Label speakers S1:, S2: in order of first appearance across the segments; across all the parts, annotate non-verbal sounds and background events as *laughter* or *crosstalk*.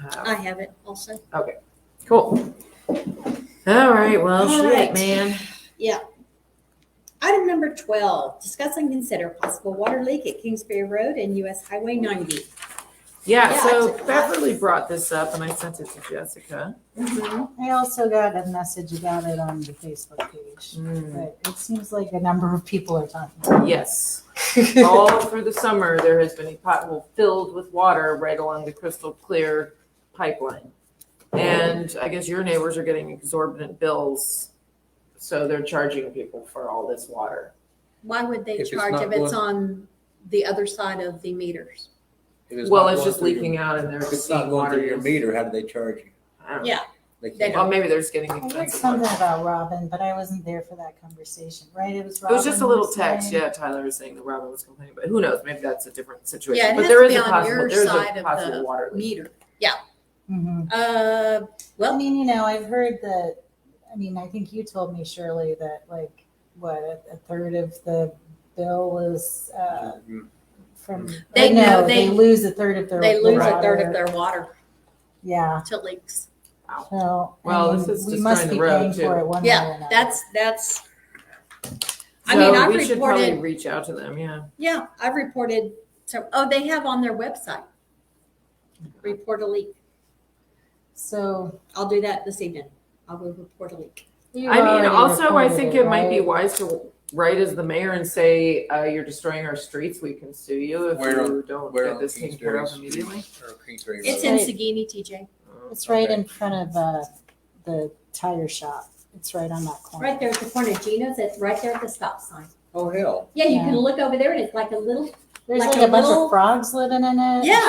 S1: have.
S2: I have it also.
S1: Cool. All right, well,
S2: All
S1: shit,
S2: right.
S1: man.
S2: Item number twelve, discuss and consider possible water leak at Kingsbury Road and US Highway ninety.
S1: Yeah,
S2: Yeah,
S1: so
S2: it's a-
S1: Beverly brought this up and I sent it to Jessica.
S3: I also got a message about it on the Facebook page,
S1: Mm,
S3: but it seems like a number of people are
S1: *laughs*
S3: talking about
S1: Yes,
S3: it.
S1: all through the summer, there has been a pothole filled with water right along the crystal clear pipeline. And I guess your neighbors are getting exorbitant bills, so they're charging people for all this water.
S2: Why would they
S4: If it's
S2: charge
S4: not
S2: if it's
S4: blood-
S2: on the the other side of the meters?
S4: If
S1: Well,
S4: not
S1: it's
S4: going
S1: just
S4: through your-
S1: leaking out and they're
S4: If it's
S1: just
S4: not
S1: seeing
S4: going
S1: water.
S4: through your
S1: use.
S4: meter, how do they charge you?
S1: I don't know.
S2: Yeah.
S4: They
S2: They
S4: can't.
S1: Well, maybe they're just getting
S3: I read
S1: expensive.
S3: something
S1: ones.
S3: about Robin, but I wasn't there for that conversation, right? It was
S1: It
S3: Robin.
S1: was just a little
S3: who was saying-
S1: text, yeah, Tyler was saying that Robin was complaining, but who knows, maybe that's a different
S2: Yeah,
S1: situation,
S2: it
S1: but
S2: has
S1: there
S2: to
S1: is
S2: be
S1: a
S2: on
S1: possible,
S2: your
S1: there's
S2: side
S1: a
S2: of
S1: possible
S2: the
S1: water leak.
S2: Meter. Yeah.
S3: Mhm.
S2: Uh,
S3: I
S2: well,
S3: mean, you know, I've heard that, I mean, I think you told me, Shirley, that like, what, a- a third of the bill is uh,
S4: Mhm.
S3: from.
S2: They
S3: or
S2: know-
S3: no,
S2: they-
S3: lose a third of their.
S2: they lose a third
S3: water.
S2: of their water
S3: Yeah,
S2: to leaks.
S3: so. I
S1: Well, this
S3: mean,
S1: is
S3: we
S1: destroying
S3: must
S1: the
S3: be
S1: road,
S3: paying
S1: too.
S3: for it one way or
S2: Yeah,
S3: another.
S2: that's, that's, I mean,
S1: So
S2: I've
S1: we should probably
S2: reported,
S1: reach out to them, yeah.
S2: yeah, I've reported, so, oh, they have on their website. Report a leak.
S3: So.
S2: I'll do that this evening. I will report a leak.
S3: you
S1: I mean,
S3: already
S1: also, I
S3: reported
S1: think it might be
S3: right?
S1: wise to write as the mayor and say, uh, you're destroying our streets, we can sue you if
S4: Where-
S1: you don't
S4: Where
S1: get
S4: on
S1: this taken care
S4: Kingsbury
S1: of
S4: Street
S1: immediately.
S4: or Kingsbury
S2: It's
S4: Road?
S2: in
S3: Right.
S2: Sagini, TJ.
S3: It's right
S4: Okay.
S3: in front of uh, the tire shop. It's right on that corner.
S2: Right there at the corner of Gino's, it's right there at the stop sign.
S4: Oh, hell.
S2: Yeah, you
S3: Yeah.
S2: can look over there and it's like a little,
S3: There's
S2: Like
S3: like,
S2: a
S3: a bunch
S2: little-
S3: of frogs living in it.
S1: *laughs*
S3: *laughs*
S2: Yeah.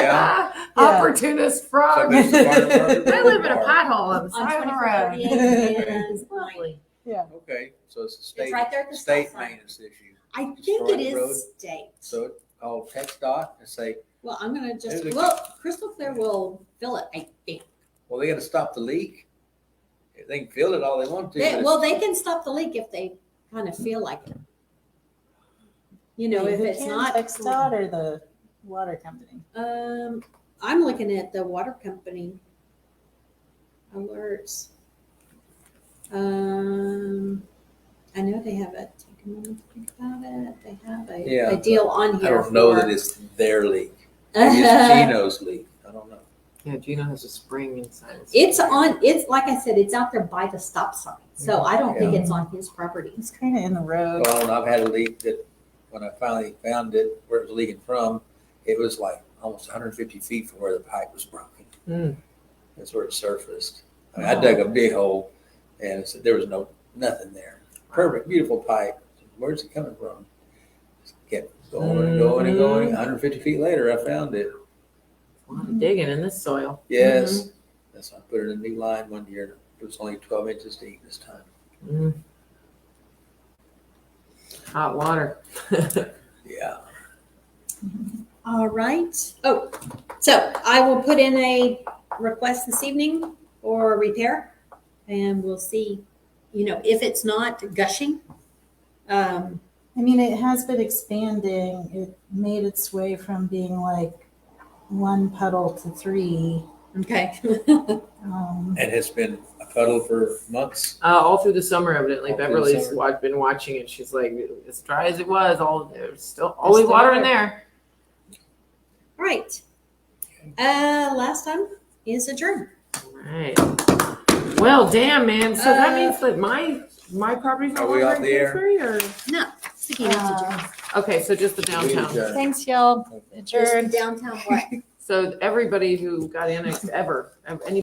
S4: Yeah.
S1: Opportunist
S4: So
S1: *laughs* frog.
S4: there's the water department
S1: Oh, They live in a
S4: or-
S1: pothole on the
S2: on
S1: side of the
S2: twenty-four
S1: road.
S2: thirty-eight and ninety.
S4: *laughs* Okay, so it's a
S2: It's
S4: state,
S2: right there at the stop
S4: state
S2: sign.
S4: maintenance issue.
S2: I think it
S4: Historic road.
S2: is state.
S4: So call text dot and say,
S2: Well, I'm gonna just,
S4: There's a-
S2: well, Crystal Clear will fill it, I think.
S4: well, they gotta stop the leak. They can fill it all they want to. but
S2: They,
S4: it's-
S2: well, they can stop the leak if they kind of feel like it. You know, if
S3: Who
S2: it's
S3: can?
S2: not,
S3: Texdot or the water company.
S2: um, I'm looking at the water company alerts. Um, I know they have a, take a moment to think about it. They have
S4: Yeah,
S2: a, a deal on
S4: I
S2: here.
S4: don't know that
S2: for-
S4: it's their
S2: *laughs*
S4: leak. Maybe it's Gino's leak. I don't know.
S1: Yeah, Gino has a spring inside. his-
S2: It's on, it's like I said, it's out there by the stop sign.
S4: Mm-hmm.
S2: So I don't think it's on his property.
S3: It's kind of in the road.
S4: Well, and I've had a leak that when I finally found it, where it was leaking from, it was like almost 150 feet from where the pipe was broken.
S1: Mm.
S4: That's where it surfaced. I, mean, I dug a big hole and it's- there was no, nothing there. Perfect, beautiful pipe. Where's it coming from? Just kept going and going and going. 150 feet later, I found it.
S1: A lot of digging in this soil.
S4: Yes. That's, I put in a new line one year. It was only 12 inches deep this time.
S1: Mm. Hot water. *laughs* Uh,
S4: Yeah.
S2: All right. Oh, so I will put in a request this evening for repair and we'll see, you know, if it's not gushing. Um,
S3: I mean, it has been expanding. It made its way from being like one puddle to three.
S2: okay. *laughs*
S3: Um,
S4: And it's been a puddle for months.
S1: Uh, all through the summer, evidently,
S4: All through the
S1: Beverly's
S4: summer.
S1: wa- been watching it. She's like, as dry as it was, all there's still always
S3: still
S1: water in there.
S2: All right. Uh, last time is adjourned.
S1: All right. Well, damn, man. So that
S2: Uh,
S1: means that my my property's no
S4: Are we
S1: longer
S4: off
S1: in
S4: the air?
S1: Kingsbury, or
S2: No, Saginaw is adjourned.
S3: uh,
S1: okay, so just the
S4: We
S1: downtown.
S4: adjourned.
S3: thanks, y'all.
S2: Just
S3: Adjourned.
S2: downtown what?
S1: So everybody who got annexed ever, ev- any